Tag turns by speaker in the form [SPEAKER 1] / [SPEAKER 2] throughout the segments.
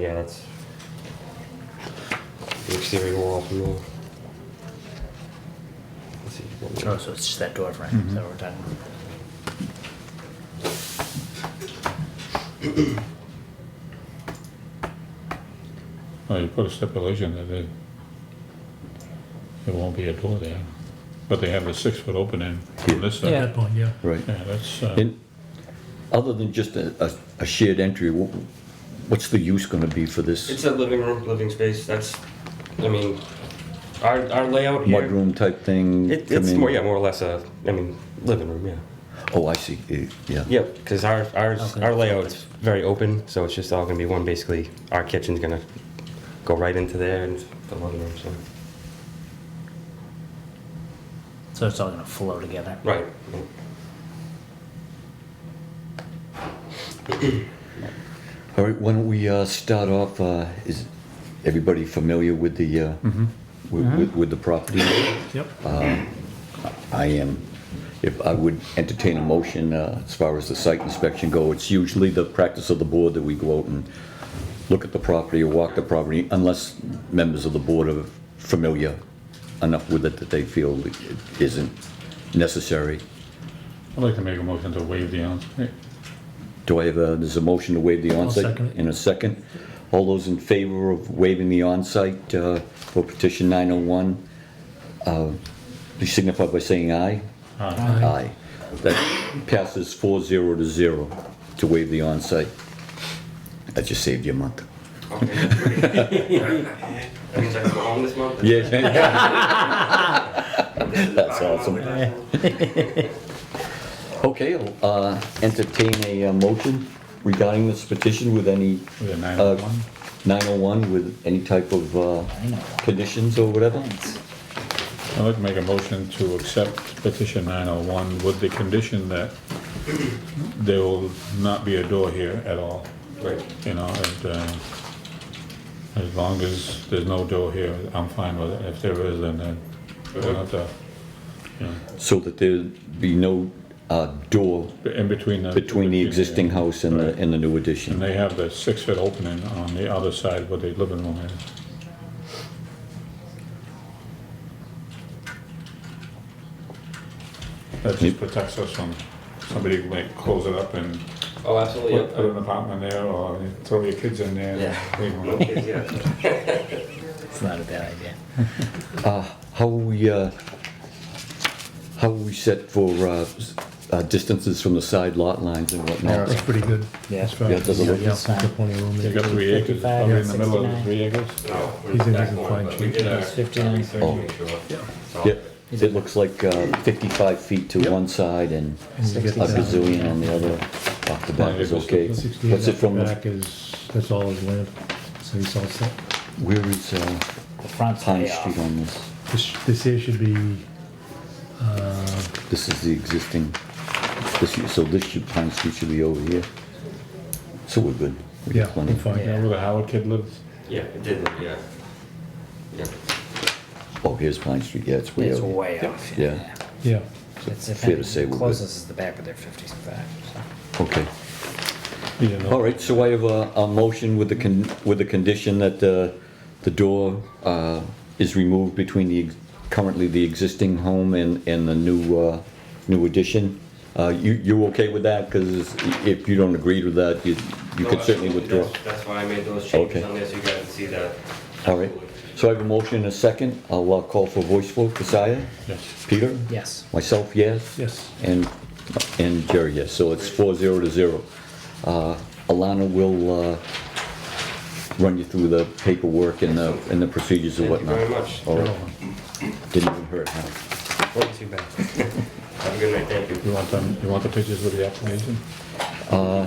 [SPEAKER 1] Yeah, that's the exterior wall from there. Let's see if you
[SPEAKER 2] Oh,
[SPEAKER 1] can-
[SPEAKER 2] so it's just that door frame is that what we're talking about?
[SPEAKER 3] Well, you put a stipulation that it, there won't be a door there, but they have the six-foot opening on this side.
[SPEAKER 2] Yeah.
[SPEAKER 4] That point, yeah.
[SPEAKER 5] Right,
[SPEAKER 3] Yeah, that's, uh,
[SPEAKER 5] and other than just a, a- a shared entry, wha- what's the use gonna be for this
[SPEAKER 1] It's a living room, living space. That's, I mean, our, our layout here.
[SPEAKER 5] mudroom type thing?
[SPEAKER 1] It,
[SPEAKER 5] come
[SPEAKER 1] it's
[SPEAKER 5] in?
[SPEAKER 1] more, yeah, more or less a, I mean, living room, yeah.
[SPEAKER 5] Oh, I see, Eh, yeah.
[SPEAKER 1] Yeah, because our, ours,
[SPEAKER 2] Okay.
[SPEAKER 1] our layout's very open, so it's just all gonna be one, basically. Our kitchen's gonna go right into there and the living room, so.
[SPEAKER 2] So it's all gonna flow together.
[SPEAKER 1] Right.
[SPEAKER 5] All right, why don't we, uh, start off, uh, is everybody familiar with the, uh, with, with- with the property? Um,
[SPEAKER 4] Yep.
[SPEAKER 5] I am. If I would entertain a motion uh, as far as the site inspection go, it's usually the practice of the board that we go out and look at the property or walk the property, unless members of the board are familiar enough with it that they feel it isn't necessary.
[SPEAKER 3] I'd like to make a motion to waive the, on- eh,
[SPEAKER 5] Do I have a, there's a motion to waive the
[SPEAKER 4] second
[SPEAKER 5] onsite
[SPEAKER 4] it.
[SPEAKER 5] in a second? All those in favor of waiving the onsite uh, for petition 901, uh, please signify by saying aye.
[SPEAKER 3] uh,
[SPEAKER 4] Aye.
[SPEAKER 5] Aye. That passes four zero to zero to waive the onsite. That just saved you a month.
[SPEAKER 1] That means I can go home this month?
[SPEAKER 5] Yeah.
[SPEAKER 1] That's
[SPEAKER 5] awesome. Okay, I'll, uh, entertain a uh, motion regarding this petition with any.
[SPEAKER 3] With a
[SPEAKER 5] uh,
[SPEAKER 3] 901?
[SPEAKER 5] 901 with any type of, uh, conditions or whatever?
[SPEAKER 3] I'd like to make a motion to accept petition 901 with the condition that there will not be a door here at all,
[SPEAKER 1] Right.
[SPEAKER 3] you know, and, uh, as long as there's no door here, I'm fine with it. If there is, then, then we'll have to, you know,
[SPEAKER 5] So that there'd be no, uh, door
[SPEAKER 3] in between the.
[SPEAKER 5] between the existing house and the, and the new
[SPEAKER 3] And
[SPEAKER 5] addition.
[SPEAKER 3] they have the six-foot opening on the other side where the living room is. That just protects us from somebody like close it up and
[SPEAKER 1] Oh, absolutely,
[SPEAKER 3] put
[SPEAKER 1] yeah.
[SPEAKER 3] put an apartment there or throw your kids in there.
[SPEAKER 1] Yeah.
[SPEAKER 3] Leave 'em alone.
[SPEAKER 1] Okay, yeah.
[SPEAKER 2] It's not a bad idea.
[SPEAKER 5] Uh, how we, uh, how we set for, uh, s- uh, distances from the side lot lines and whatnot?
[SPEAKER 4] That's pretty good.
[SPEAKER 2] Yeah.
[SPEAKER 4] That's right.
[SPEAKER 5] Yeah, it doesn't look-
[SPEAKER 4] uh, Yeah, yeah, got plenty of room
[SPEAKER 3] They
[SPEAKER 4] there.
[SPEAKER 3] got three acres, it's probably in the middle of
[SPEAKER 2] 55,
[SPEAKER 3] the three acres.
[SPEAKER 1] No, Oh, we're
[SPEAKER 4] He's in
[SPEAKER 1] back
[SPEAKER 4] his
[SPEAKER 1] one,
[SPEAKER 4] fine
[SPEAKER 1] but we did uh, our-
[SPEAKER 2] Fifty-nine.
[SPEAKER 1] our research to make sure. So-
[SPEAKER 5] Yeah, it looks like uh, 55 feet to one side and a
[SPEAKER 4] And you get that.
[SPEAKER 5] gazillion on the other. Off the back is okay.
[SPEAKER 4] Sixty-eight
[SPEAKER 5] What's it
[SPEAKER 4] out
[SPEAKER 5] from,
[SPEAKER 4] the
[SPEAKER 5] the-
[SPEAKER 4] Back is, that's all his land, so he's all set.
[SPEAKER 5] where is uh,
[SPEAKER 2] The front's
[SPEAKER 5] Pine
[SPEAKER 2] way off.
[SPEAKER 5] Street on this?
[SPEAKER 4] This, this here should be, uh,
[SPEAKER 5] This is the existing, this, so this should, Pine Street should be over here. So we're good. We got
[SPEAKER 4] yeah,
[SPEAKER 5] plenty.
[SPEAKER 4] we're fine.
[SPEAKER 3] You know where the Howard kid lives?
[SPEAKER 1] Yeah, it did, yeah. Yeah.
[SPEAKER 5] Oh, here's Pine Street, yeah, it's way
[SPEAKER 2] It's
[SPEAKER 5] over.
[SPEAKER 2] way off.
[SPEAKER 5] Yeah.
[SPEAKER 4] Yeah,
[SPEAKER 2] It's if
[SPEAKER 5] Fair to
[SPEAKER 2] anything,
[SPEAKER 5] say we're good.
[SPEAKER 2] closest is the back of their fifty-five. so.
[SPEAKER 5] Okay.
[SPEAKER 3] You know,
[SPEAKER 5] All right, so I have a, a motion with the, con- with the condition that uh, the door uh, is removed between the, ex- currently the existing home and, and the new, uh, new addition. Uh, You, you okay with that? Because if you don't agree with that, you, you
[SPEAKER 1] No,
[SPEAKER 5] could certainly
[SPEAKER 1] absolutely,
[SPEAKER 5] withdraw.
[SPEAKER 1] that's- That's why I made those changes
[SPEAKER 5] Okay.
[SPEAKER 1] on there, so you guys can see that.
[SPEAKER 5] All right, so I have a motion and a second. I'll uh, call for voice vote. Kasia?
[SPEAKER 3] Yes.
[SPEAKER 5] Peter?
[SPEAKER 2] Yes.
[SPEAKER 5] Myself, yes?
[SPEAKER 4] yes.
[SPEAKER 5] And, and Jerry, yes, so it's four zero to zero. Uh, Alana will, uh, run you through the paperwork and the, and the procedures and
[SPEAKER 1] Thank you
[SPEAKER 5] whatnot.
[SPEAKER 1] very much.
[SPEAKER 5] All right. Didn't even hurt, huh?
[SPEAKER 1] Wasn't too bad. Have a good night, thank
[SPEAKER 3] You
[SPEAKER 1] you.
[SPEAKER 3] want them, you want the pictures with the application?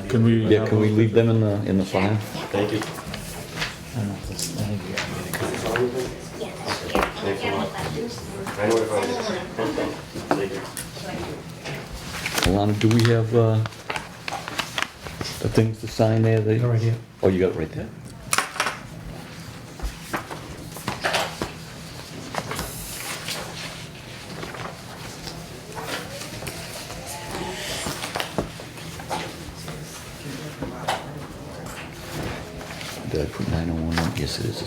[SPEAKER 3] Can we?
[SPEAKER 5] Uh, Yeah,
[SPEAKER 3] have
[SPEAKER 5] can we
[SPEAKER 3] those
[SPEAKER 5] leave them in the, in the file?
[SPEAKER 1] Thank you.
[SPEAKER 2] I don't know if this, I think you gotta get a copy.
[SPEAKER 1] Thanks a lot. I know if I- Thank you.
[SPEAKER 5] Alana, do we have, uh, the things to sign there that?
[SPEAKER 4] Right here.
[SPEAKER 5] Oh, you got it right there? Did I put 901? Yes, it is.